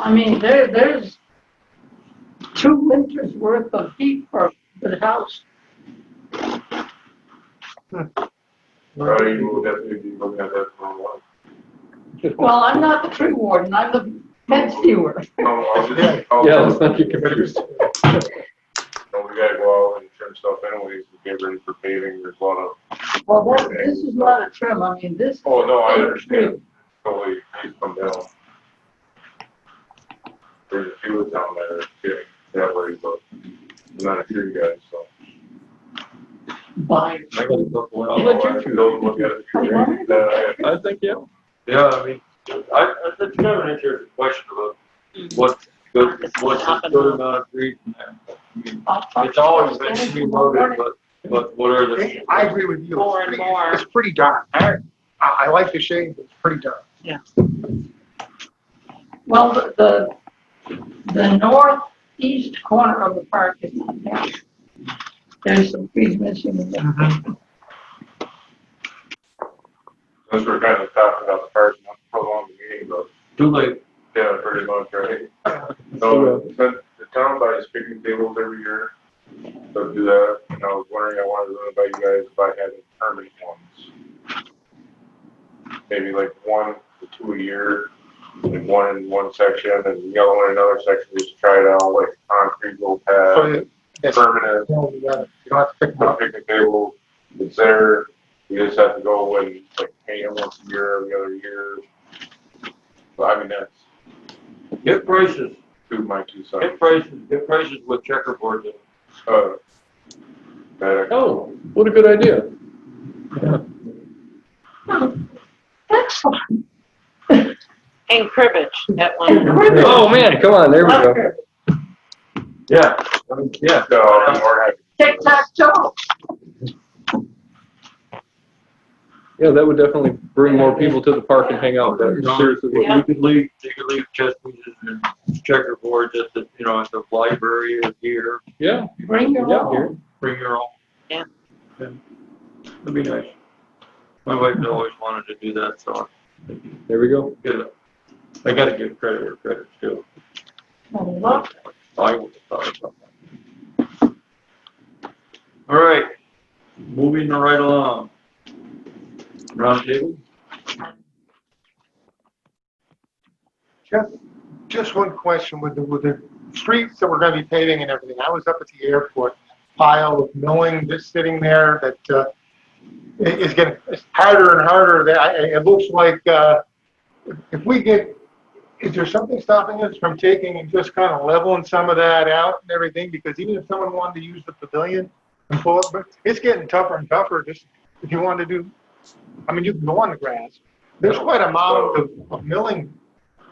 I mean, there, there's two winters worth of heat for the house. Right, you will definitely be looking at that for a while. Well, I'm not the tree warden, I'm the pet steward. Oh, I'll just- I'll- Yeah, let's not get confused. Well, we gotta go out and trim stuff anyways, to get ready for paving, there's a lot of, Well, that, this is not a trim, I mean, this. oh, no, I understand, totally, please come down. There's a few of them that are getting that way, but I'm not a few guys, so. By, I gotta look well. I'll Go look at it. Okay. Then I- I think, yeah. Yeah, I mean, I, I think you have an interesting question about what's good, what's a good amount of trees. and that. I mean, It's always been to be loaded, but, but what are the? I agree with you. More and more. It's pretty dark. I, I like the shade, but it's pretty dark. well, the, the, the northeast corner of the park is not there. There's some trees missing in there. Since we're kind of talking about the parks, not to prolong the meeting, but Too late. Yeah, pretty much, right? So, the the town buys picnic tables every year, so do that, and I was wondering, I wanted to know about you guys, if I had permanent ones. Maybe like one, to two a year, and one in one section, and the other one in another section, just try it out, like concrete little Oh, So pad, you yes, you permanent, don't have to pick them the up. picnic table, it's there, you just have to go and like pay them once a year, every other year. So I mean, that's Get prices, two of my two cents. get prices, get prices with checkerboards. in. Uh, that I- Oh, what a good idea. Excellent. And cribbage at one. Cribbage. Oh, man, come on, there we go. Yeah, I mean, yeah. So I'm more happy. Tic tac toe. Yeah, that would definitely bring more people to the park and hang out there. Seriously. You could leave, you could leave chess pieces and checkerboards at the, you know, at the library or here, Yeah, Bring your yeah, own. here. bring your own. Yeah. Yeah. That'd be nice. My wife always wanted to do that, so There we go. Good. I gotta give credit where credit's due. Well, look, I would have thought about that. All right, moving right along. Round table? Just, just one question with the, with the streets that we're gonna be paving and everything. I was up at the airport, pile of knowing that's sitting there that, uh, i- is getting, it's harder and harder. That, I- it looks like, uh, if we get, is there something stopping us from taking and just kind of leveling some of that out and everything? Because even if someone wanted to use the pavilion and pull it, but it's getting tougher and tougher, just if you wanted to do, I mean, you can go on the grass. There's quite a mound of, of milling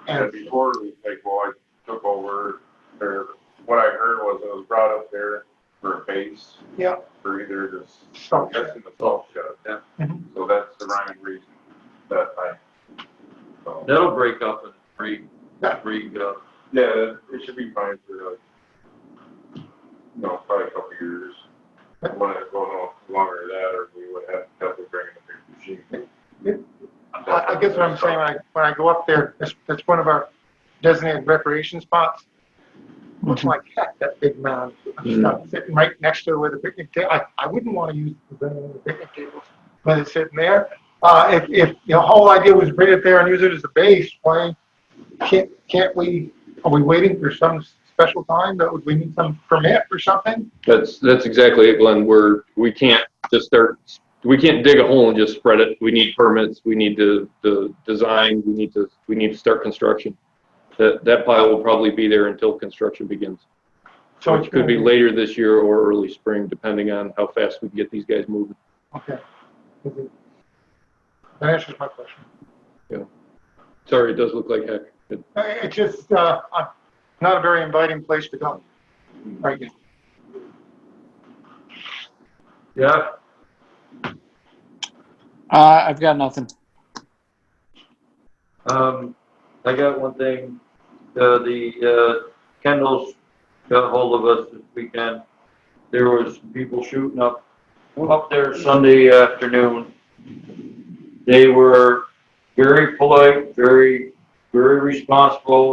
And and before, we- like, well, I took over, or what I heard was it was brought up there for a base. Yeah. For either this, Salt shed. that's in the salt shed. Yeah. Mhm. So that's the rhyme and reason that um, I. so, That'll break up and re, Yeah. re, uh, Yeah, it should be fine for like, you know, probably a couple years. I wanna go no longer than that, or we would have to definitely bring in a big machine. I, I guess what I'm saying, when I, when I go up there, that's, that's one of our designated recreation spots. Looks Mm-hmm. like heck, that big mound of stuff sitting right next to where the picnic table, I, I wouldn't want to use the the picnic tables, but it's sitting there. Uh, if, if the whole idea was to bring it there and use it as a base, why can't, can't we, are we waiting for some special time? That would, we need some permit or something? That's, that's exactly it, Glenn. We're, we can't just start, we can't dig a hole and just spread it. We need permits, we need to, the design, we need to, we need to start construction. That, that pile will probably be there until construction begins, So it's which could be gonna later this year or early spring, depending on how fast we can get these guys moving. Okay. That answers my question. Sorry, it does look like heck. It- Uh, It's just, uh, uh, not a very inviting place to go right now. yeah, Uh, I've got nothing. Um, I got one thing, uh, the, uh, Kendall's got hold of us this weekend. There was people shooting up, up there Sunday afternoon. They were very polite, very, very responsible,